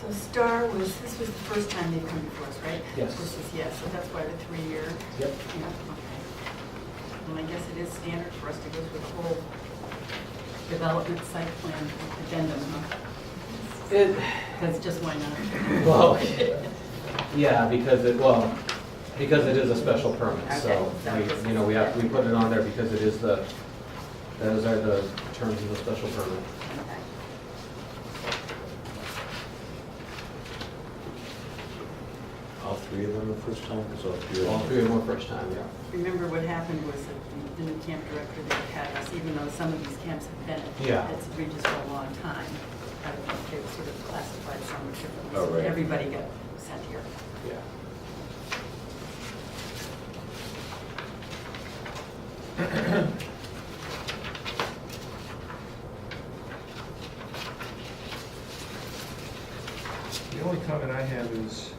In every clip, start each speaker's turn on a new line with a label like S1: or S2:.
S1: So Star was, this was the first time they've come before us, right?
S2: Yes.
S1: This is, yes, so that's why the three-year, yeah,
S2: Yep.
S1: okay. And I guess it is standard for us to go through the whole development site plan addendum, huh?
S2: It,
S1: That's just why not?
S2: well, yeah, because it, well, because it is a special permit, so,
S1: Okay.
S2: we- you know, we have, we put it on there because it is the, those are the terms of the special permit.
S3: All three of them the first time, because all three
S2: All
S3: of
S2: three
S3: them.
S2: of them were first time, yeah.
S1: Remember what happened was that the new camp director that had us, even though some of these camps have been
S2: Yeah.
S1: at St. Regis for a long time, I don't know if they were sort of classified somewhat differently.
S3: Oh, right.
S1: Everybody got sent here.
S2: Yeah.
S4: The only comment I have is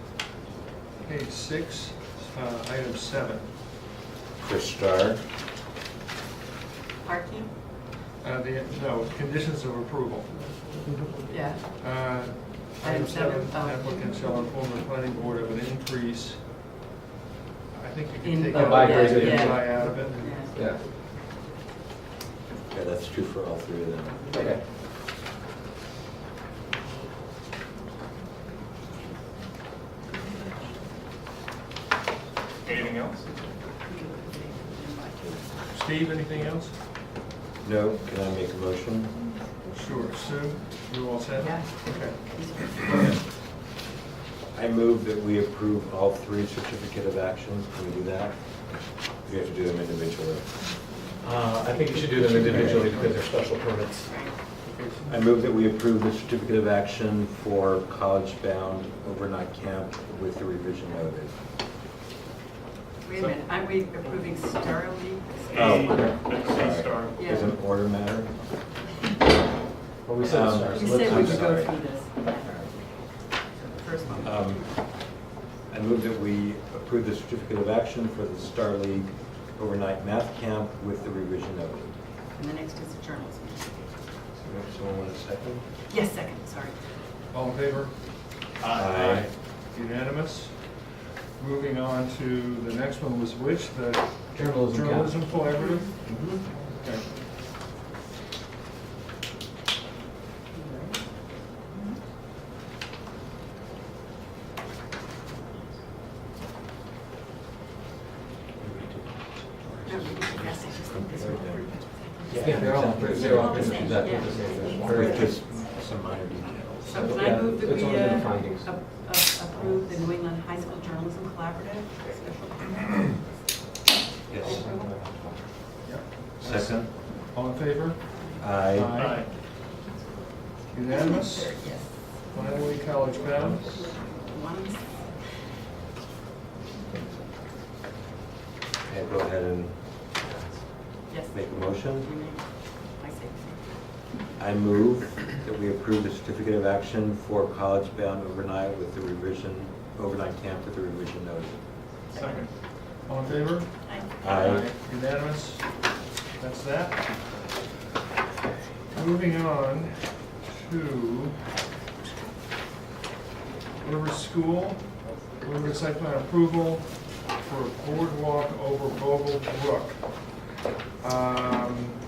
S4: page six, uh, item seven.
S3: For Star,
S1: Parking?
S4: Uh, The, no, conditions of approval.
S1: Yeah.
S4: Uh,
S1: Item
S4: Item
S1: seven,
S4: seven,
S1: oh.
S4: applicant shall inform the planning board of an increase. I think you
S1: In
S4: can take
S1: both,
S4: out
S2: By grade,
S4: the
S2: yeah.
S4: by out of it.
S1: Yeah.
S2: Yeah,
S3: yeah, that's true for all three of them.
S2: okay.
S5: Anything else?
S4: Steve, anything else?
S3: No, can I make a motion?
S4: Sure. Sue, you all set?
S1: Yeah.
S4: Okay.
S3: I move that we approve all three certificate of actions. Can we do that? We have to do them individually.
S2: Uh, I think you should do them individually because they're special permits.
S4: Okay, so-
S3: I move that we approve the certificate of action for college-bound overnight camp with the revision noted.
S1: Wait a minute, aren't we approving Star League?
S3: Oh.
S5: Let's say Star.
S1: Yeah.
S3: Does an order matter?
S2: Well, we said
S3: Um,
S2: stars.
S1: You
S2: let's-
S1: said
S3: I'm
S1: we could go
S3: sorry.
S1: through this. First one.
S3: Um, I move that we approve the certificate of action for the Star League overnight math camp with the revision noted.
S1: And the next is the journals.
S3: Someone want a second?
S1: Yes, second, sorry.
S4: All in favor?
S3: Aye.
S4: Unanimous. Moving on to, the next one was which, the
S2: Journalism count.
S4: journalism collaborative?
S3: Mm-hmm.
S4: Okay.
S1: No, Oh, we didn't discuss it, just think this one.
S2: Yeah, they're all, they're all pretty much exactly the same.
S1: Yeah.
S3: With
S2: Very-
S3: just some minor details.
S1: So can
S2: Yeah,
S1: I move that
S2: it's
S1: we
S2: only the
S1: uh,
S2: findings.
S1: ap- ap- approve the New England High School Journalism Collaborative? special-
S3: Yes.
S4: Yep.
S3: Second?
S4: All in favor?
S3: Aye.
S4: Aye. Unanimous?
S1: Yes.
S4: Finally, college bound?
S1: One,
S3: Okay, go ahead and
S1: yes.
S3: make a motion.
S1: You may. I say.
S3: I move that we approve the certificate of action for college-bound overnight with the revision, overnight camp with the revision noted.
S5: Second.
S4: All in favor?
S1: Aye.
S3: Aye.
S4: Unanimous? That's that. Moving on to River School, River Site Plan Approval for a boardwalk over Bogle Brook. Um,